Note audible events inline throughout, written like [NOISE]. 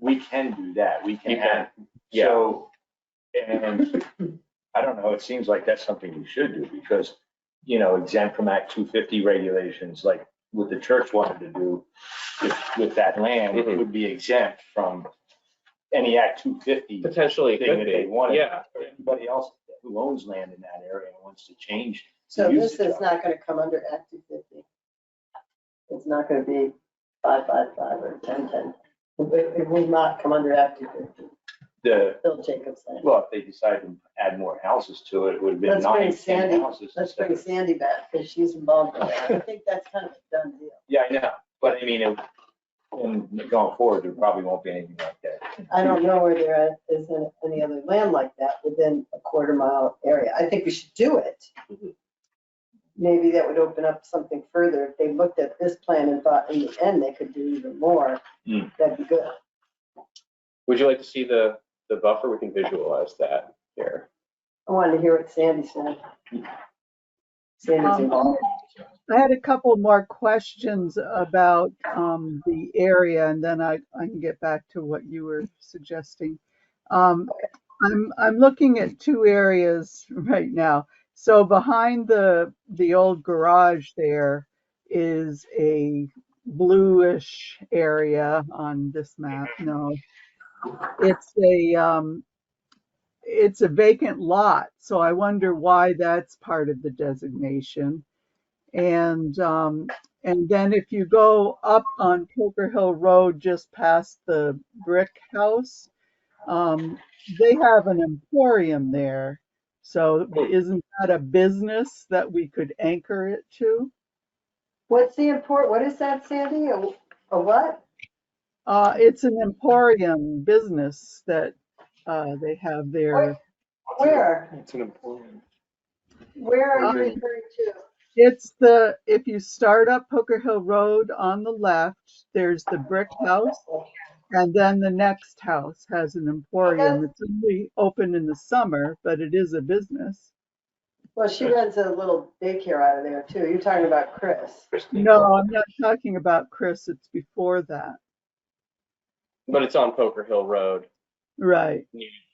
we can do that, we You can can, have, yeah. so, and I don't know, it seems like that's something we should do, because, you know, exempt from Act two fifty regulations, like what the church wanted to do with, with that land, it Mhm. would be exempt from any Act two fifty. Potentially it Thing could that they be, wanted. yeah. Anybody else who owns land in that area and wants to change. So the this usage is of it. not gonna come under Act two fifty. It's not gonna be five, five, five or ten, ten. It, it will not come under Act two fifty, The, Bill Jacobs said. well, if they decided to add more houses to it, it would have been Let's bring nine, ten Sandy- houses. Let's instead bring of- Sandy back, because she's involved in that. I think that's kind of a done deal. Yeah, I know, but I mean, it- and going forward, there probably won't be anything like that. I don't know where there are- is any- any other land like that within a quarter mile area. I think we should do it. Maybe that would open up something further. If they looked at this plan and thought in the end they could do even more, Hmm. that'd be good. Would you like to see the, the buffer? We can visualize that here. I wanted to hear what Sandy said. Sandy's Um, involved. I had a couple more questions about um, the area, and then I, I can get back to what you were suggesting. Um, I'm, I'm looking at two areas [LAUGHS] right now. So behind the, the old garage there is a bluish area on this map. No, it's a, um, it's a vacant lot, so I wonder why that's part of the designation. And, um, and then if you go up on Poker Hill Road, just past the brick house, um, they have an emporium there. So isn't that a business that we could anchor it to? What's the import, what is that, Sandy? A a what? Uh, it's an emporium business that, uh, they have there. Where? It's an important. Where are you Um, referring to? It's the, if you start up Poker Hill Road on the left, there's the brick house. And then the next house has an emporium. It's only open in the summer, but it is a business. Well, she runs a little daycare out of there too. You're talking about Chris. No, I'm not talking about Chris. It's before that. But it's on Poker Hill Road, Right.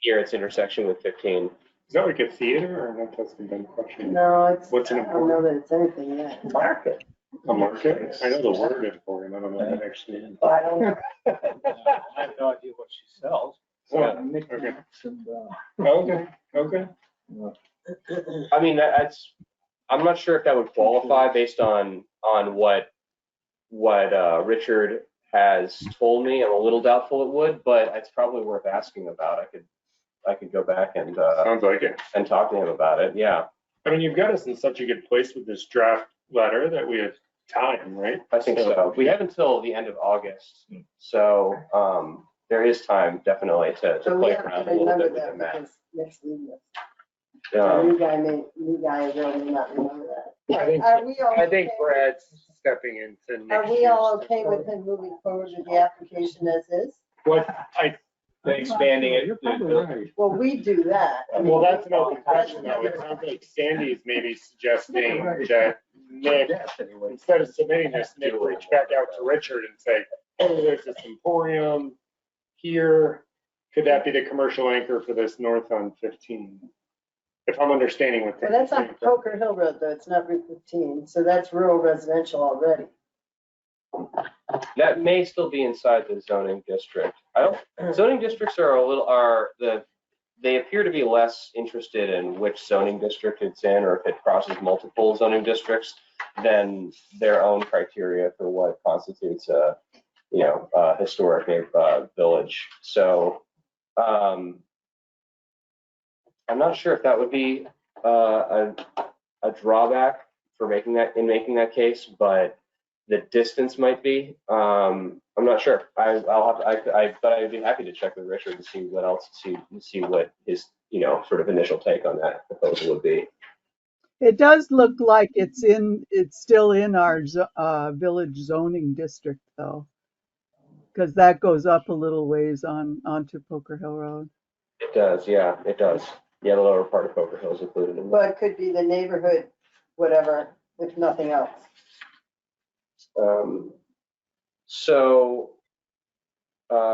near its intersection with 15. Is that like a theater or not? That's been done question. No, it's, What's I an don't know that it's anything yet. Market. A market? I know the word emporium. I don't know what that actually is. Well, I don't know. [LAUGHS] I have no idea what she sells. uh, Yeah, okay. Oh, Okay, okay. I mean, that- that's, I'm not sure if that would qualify based on, on what, what uh, Richard has told me. I'm a little doubtful it would, but it's probably worth asking about. I could, I could go back and, uh, Sounds like it. and talk to him about it, yeah. I mean, you've got us in such a good place with this draft letter that we have time, right? I think so. Hmm. We have until the end of August, so um, there is time definitely to, to So we play have around to a little remember bit that with the because next meeting, map. the Um, new guy may, new guy will not remember that. I think, Are we all? I think okay- Brad's stepping into next Are we year's all okay with program. him moving forward with the application as is? What, I, Then expanding it. you're probably right. Well, we do that. I mean, Well, that's an we- open question though. It sounds like Sandy's maybe suggesting that Nick instead of submitting this, Nick will reach back out to Richard and say, oh, there's this emporium here. Could that be the commercial anchor for this north on 15? If I'm understanding what. Well, that- that's on Poker Hill Road though, it's not Route 15, so that's rural residential already. That may still be inside the zoning district. I don't, zoning districts are a little, are the, they appear to be less interested in which zoning district it's in or if it crosses multiple zoning districts than their own criteria for what constitutes a, you know, a historic uh, village. So, um, I'm not sure if that would be, uh, a, a drawback for making that, in making that case, but the distance might be. Um, I'm not sure. I, I'll have, I, I, but I'd be happy to check with Richard and see what else, see, see what his, you know, sort of initial take on that proposal would be. It does look like it's in, it's still in our, zo- uh, village zoning district though. Cause that goes up a little ways on, onto Poker Hill Road. It does, yeah, it does. Yeah, the lower part of Poker Hill is included in that. Well, it could be the neighborhood, whatever, if nothing else. Um, so, uh,